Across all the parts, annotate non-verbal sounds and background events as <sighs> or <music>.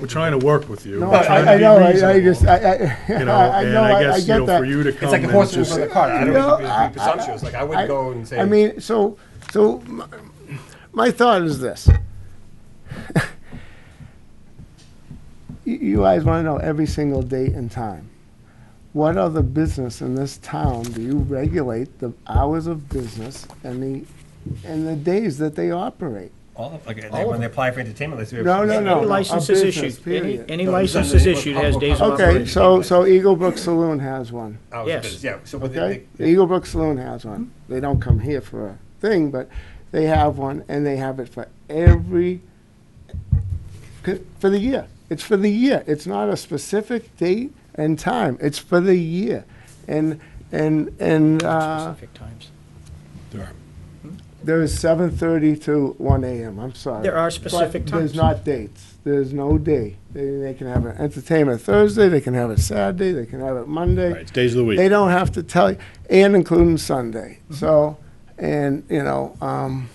We're trying to work with you. No, We're trying to I, I be know, I, I reasonable, just, I, I, <laughs> You know, I and know, I I I guess, you get know, for you that. to It's come like a and horse before just, the cart. I don't No, know, it's I- being presumptuous, like I wouldn't go and say. I mean, so, so, my, my thought is this. <laughs> You, you guys wanna know every single date and time. What other business in this town do you regulate the hours of business and the, and the days that they operate? All of, like, they- when they apply for entertainment license. No, no, no. Any license is a issued, business, any, period. any No, license is Sunday, issued has days of operation. Okay, so, so Eagle Brook Saloon has one. Hours of Yes. "Oh, business, Yeah, so what Okay, they, the Eagle Brook Saloon has one. Mm-hmm. They don't come here for a thing, but they have one, and they have it for every, for the year. It's for the year. It's not a specific date and time. It's for the year. And, and, and, uh, Specific times. there is seven thirty to one AM, I'm sorry. There are specific But There's times. not dates. There's no day. They, they can have an entertainment Thursday, they can have it Saturday, they can have it Monday. Right, it's days of the week. They don't have to tell you, and including Sunday. Mm-hmm. So, and, you know, um,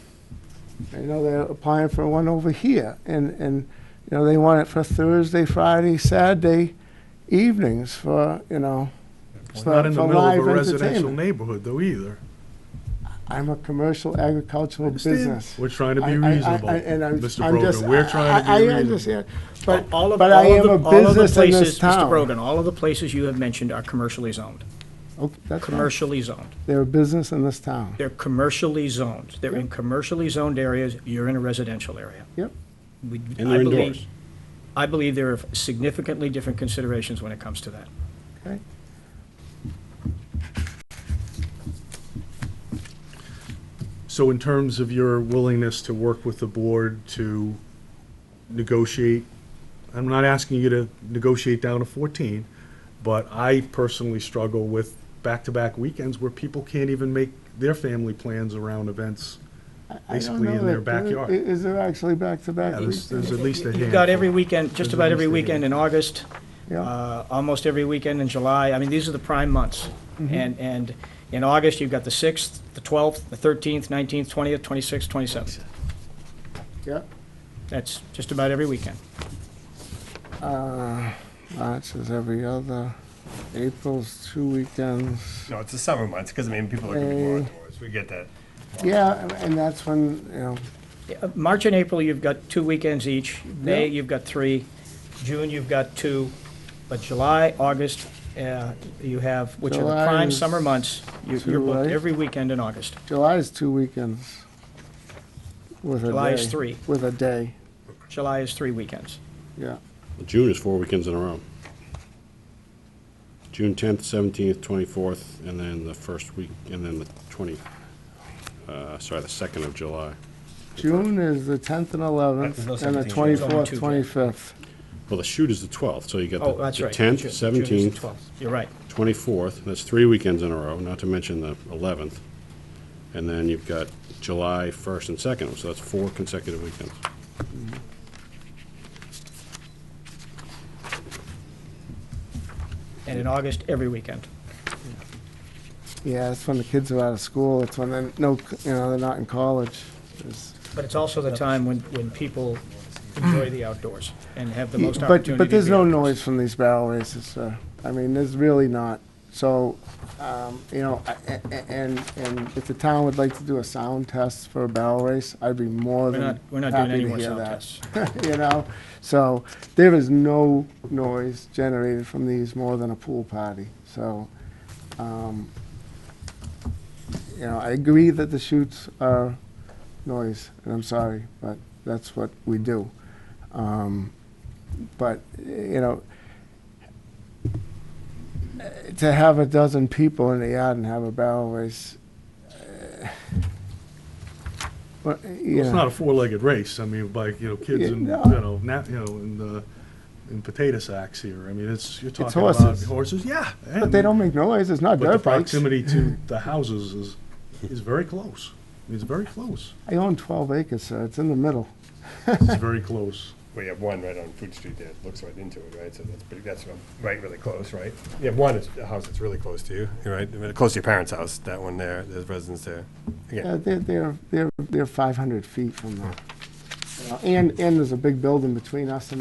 I know they're applying for one over here, and, and, you know, they want it for Thursday, Friday, Saturday evenings for, you know, it's for not in the for middle live of a residential entertainment. neighborhood though either. I'm a commercial agricultural business. We're trying to I- be I- I- reasonable, I- and I'm- Mr. I'm just- Brogan. We're trying to I- be I reasonable. understand, but, All of- but all I of am the- a all of the business in this places- Mr. town. Brogan, all of the places you have mentioned are commercially zoned, Oh, that's fine. commercially zoned. They're a business in this town. They're commercially zoned. They're in commercially zoned areas, you're in a residential area. Yep. We- And I they're believe- indoors. I believe there are significantly different considerations when it comes to that. Okay. So in terms of your willingness to work with the board to negotiate, I'm not asking you to negotiate down to 14, but I personally struggle with back-to-back weekends where people can't even make their family plans around events. I don't Basically know in their that there- backyard. i- Is there actually back-to-back? Yeah, there's, there's at least a handful. You've got every weekend, just There's about every almost a weekend in August, Yeah. uh, almost every weekend in July. I mean, these are the prime months. And, and in August, you've got the 6th, the 12th, the 13th, 19th, 20th, 26th, 27th. Yeah, That's just about every weekend. March Uh, is every other, April's two weekends. no, it's the summer months, because I mean, people are gonna be more Uh, outdoors, we get that. Yeah, and- and that's when, you know, Uh, March and April, you've got two weekends each. May, Yeah. you've got three. June, you've got two. But July, August, uh, you have, which are the July prime is summer months, you- you're booked July. every weekend in August. July's two weekends with a day. July is three. With a day, July is three weekends. yeah. June is four weekends in a row. June tenth, seventeenth, twenty-fourth, and then the first week, and then the twenty, uh, sorry, the second of July. June is the 10th and There's no 11th, and the 17th. 24th, There's only two. 25th. Well, the shoot is the twelfth, so you got Oh, the- that's the right. tenth, June- June is the seventeenth, 12th. You're right. twenty-fourth, that's three weekends in a row, not to mention the eleventh. And then you've got July first and second, so that's four consecutive weekends. And in August, every weekend. Yeah, that's when the kids are out of school, it's when they're, no, you know, they're not in college. It's- But it's also the time when, when people enjoy the outdoors and have the most opportunity. But, but there's to be no outdoors. noise from these barrel races, sir. I mean, there's really not. So, um, you know, I- a- a- and, and if the town would like to do a sound test for a barrel race, I'd be more We're not, than we're not doing happy any to more hear sound that. tests. <laughs> You know, so there is no noise generated from these more than a pool party, so, um, you know, I agree that the shoots are noise, and I'm sorry, but that's what we do. Um, but, you know, to have a dozen people in the yard and have a barrel race, eh, <sighs> well, you It's know. not a four-legged race, I mean, like, you know, kids Yeah, and, you no. know, nat, you know, and, uh, and potato sacks here, I mean, it's, you're talking about horses. horses, yeah. But they don't make noise. It's not But the dirt bikes. proximity to the houses is, is very close, it's very close, I own 12 acres, sir. It's in the middle. it's very close. We have one right on Food Street that looks right into it, right, so that's pretty, that's right, really close, right? You have one, it's a house that's really close to you, you're right, I mean, close to your parents' house, that one there, there's residents there. Uh, Again, they're, uh, they're, they're, they're 500 feet from the. And, and there's a big building between us and